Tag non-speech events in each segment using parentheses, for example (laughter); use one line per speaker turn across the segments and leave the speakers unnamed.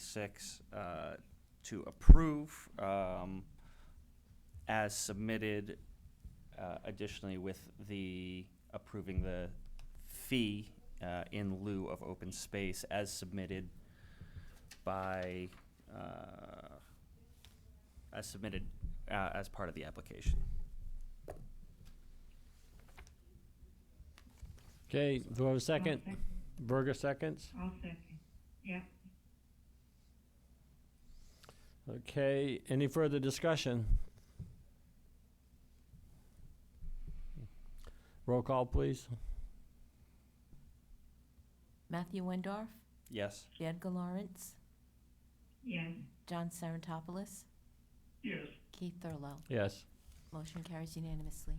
twenty-six, uh, to approve, um, as submitted, uh, additionally with the approving the fee, uh, in lieu of open space as submitted by, uh, as submitted, uh, as part of the application.
Okay, do I have a second?
I'll
Berger seconds.
I'll second. Yeah,
Okay, any further discussion? Roll call, please.
Matthew Wendorf,
Yes?
Edgar Lawrence,
yes.
John Serentopoulos,
Yes.
Keith Thurlow.
Yes.
Motion carries unanimously.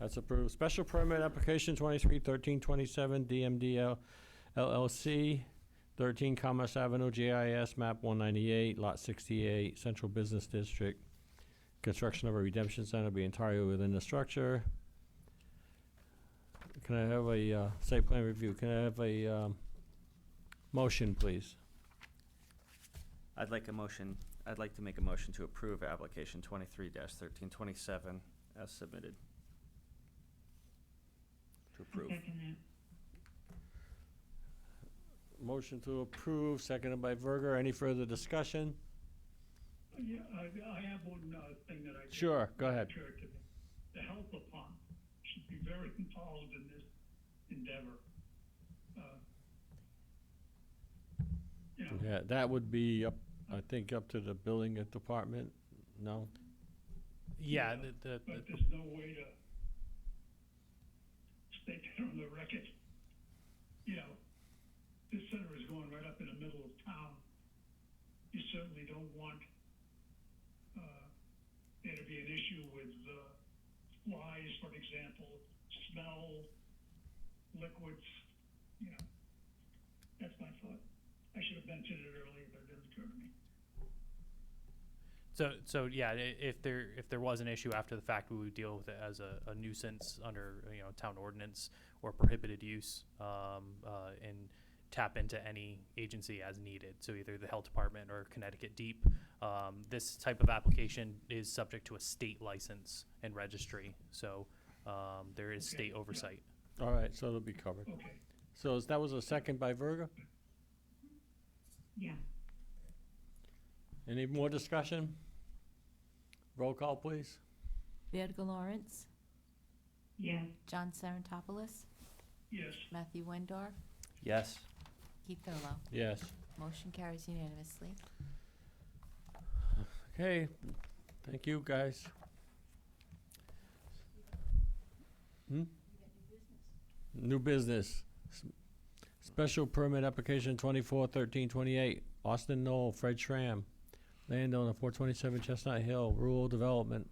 That's approved. Special permit application twenty-three thirteen twenty-seven DMDL LLC, thirteen Commerce Avenue, GIS map one ninety-eight, lot sixty-eight, Central Business District. Construction of a redemption center be entirely within the structure. Can I have a, uh, site plan review? Can I have a, um, motion, please?
I'd like a motion, I'd like to make a motion to approve application twenty-three thirteen twenty-seven as submitted. To
I'll
(laughs)
approve.
second
Motion to approve, seconded by Verger. Any further discussion?
Yeah, I, I have one, uh, thing that I.
Sure, go ahead.
occurred to me. The health department should be very involved in this endeavor. Uh, You know,
Yeah, that would be up, I think, up to the building department, no?
Yeah,
Yeah,
the, the,
but
the-
there's no way to (laughs) state that on the record. You know, this center is going right up in the middle of town. You certainly don't want, uh, there to be an issue with, uh, flies, for example, smell, liquids, you know. That's my thought. I should have mentioned it earlier, but it didn't occur to me.
so, so, yeah, i- if there, if there was an issue after the fact, we would deal with it as a, a nuisance under, you know, town ordinance or prohibited use, um, uh, and tap into any agency as needed, so either the health department or Connecticut Deep. Um, this type of application is subject to a state license and registry, so, um, there is
Okay,
state
yeah.
oversight.
All right, so it'll be covered.
Okay,
So is- that was a second by Verga?
Yeah,
Any more discussion? Roll call, please.
Edgar Lawrence,
yes,
John Serentopoulos,
yes,
Matthew Wendorf,
Yes?
Keith Thurlow.
Yes.
Motion carries unanimously.
Okay, thank you, guys. Hmm? New business. S- Special permit application twenty-four thirteen twenty-eight, Austin Knoll, Fred Schramm, landowner four twenty-seven Chestnut Hill, rural development,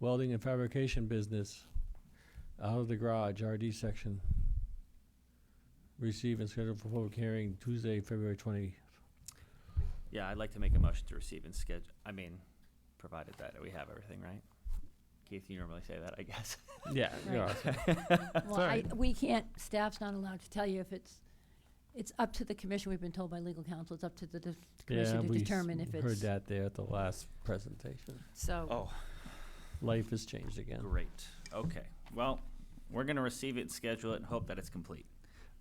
welding and fabrication business, out of the garage, RD section. Receive and schedule for public hearing Tuesday, February twenty.
Yeah, I'd like to make a motion to receive and schedule, I mean, provided that we have everything, right? Keith, you normally say that,
(laughs)
I guess.
Yeah,
(laughs)
yeah.
Well, I,
Sorry.
we can't, staff's not allowed to tell you if it's, it's up to the commission. We've been told by legal counsel, it's up to the de-
Yeah,
commission to
we s-
determine if
Heard
it's,
that there at the last presentation.
so,
Oh,
Life has changed again.
great. Okay. Well, we're gonna receive it, schedule it, and hope that it's complete.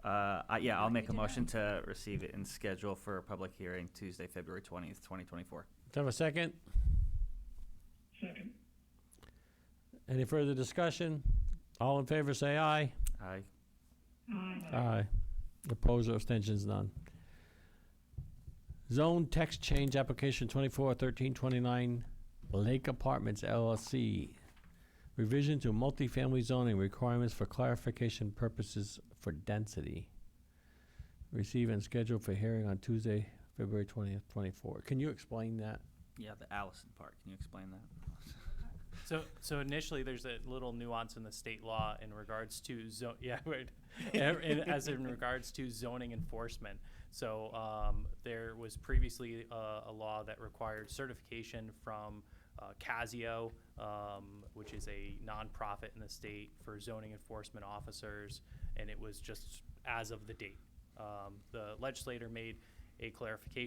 Uh, I, yeah, I'll
What do
make a
we do
motion to receive it and schedule for a public hearing Tuesday, February twentieth, twenty twenty-four.
Do I have a second?
second,
Any further discussion? All in favor, say aye.
Aye.
aye,
Aye. Opposed or abstentions, none. Zone text change application twenty-four thirteen twenty-nine, Lake Apartments LLC. Revision to multifamily zoning requirements for clarification purposes for density. Receive and schedule for hearing on Tuesday, February twentieth, twenty-four. Can you explain that?
Yeah, the Allison part. Can you explain that?
So, so initially, there's a little nuance in the state law in regards to zone, (laughs) yeah, right. Ev- in- As in regards to zoning enforcement. So, um, there was previously uh, a, a law that required certification from, uh, Casio, um, which is a nonprofit in the state for zoning enforcement officers, and it was just as of the date. Um, the legislator made a clarification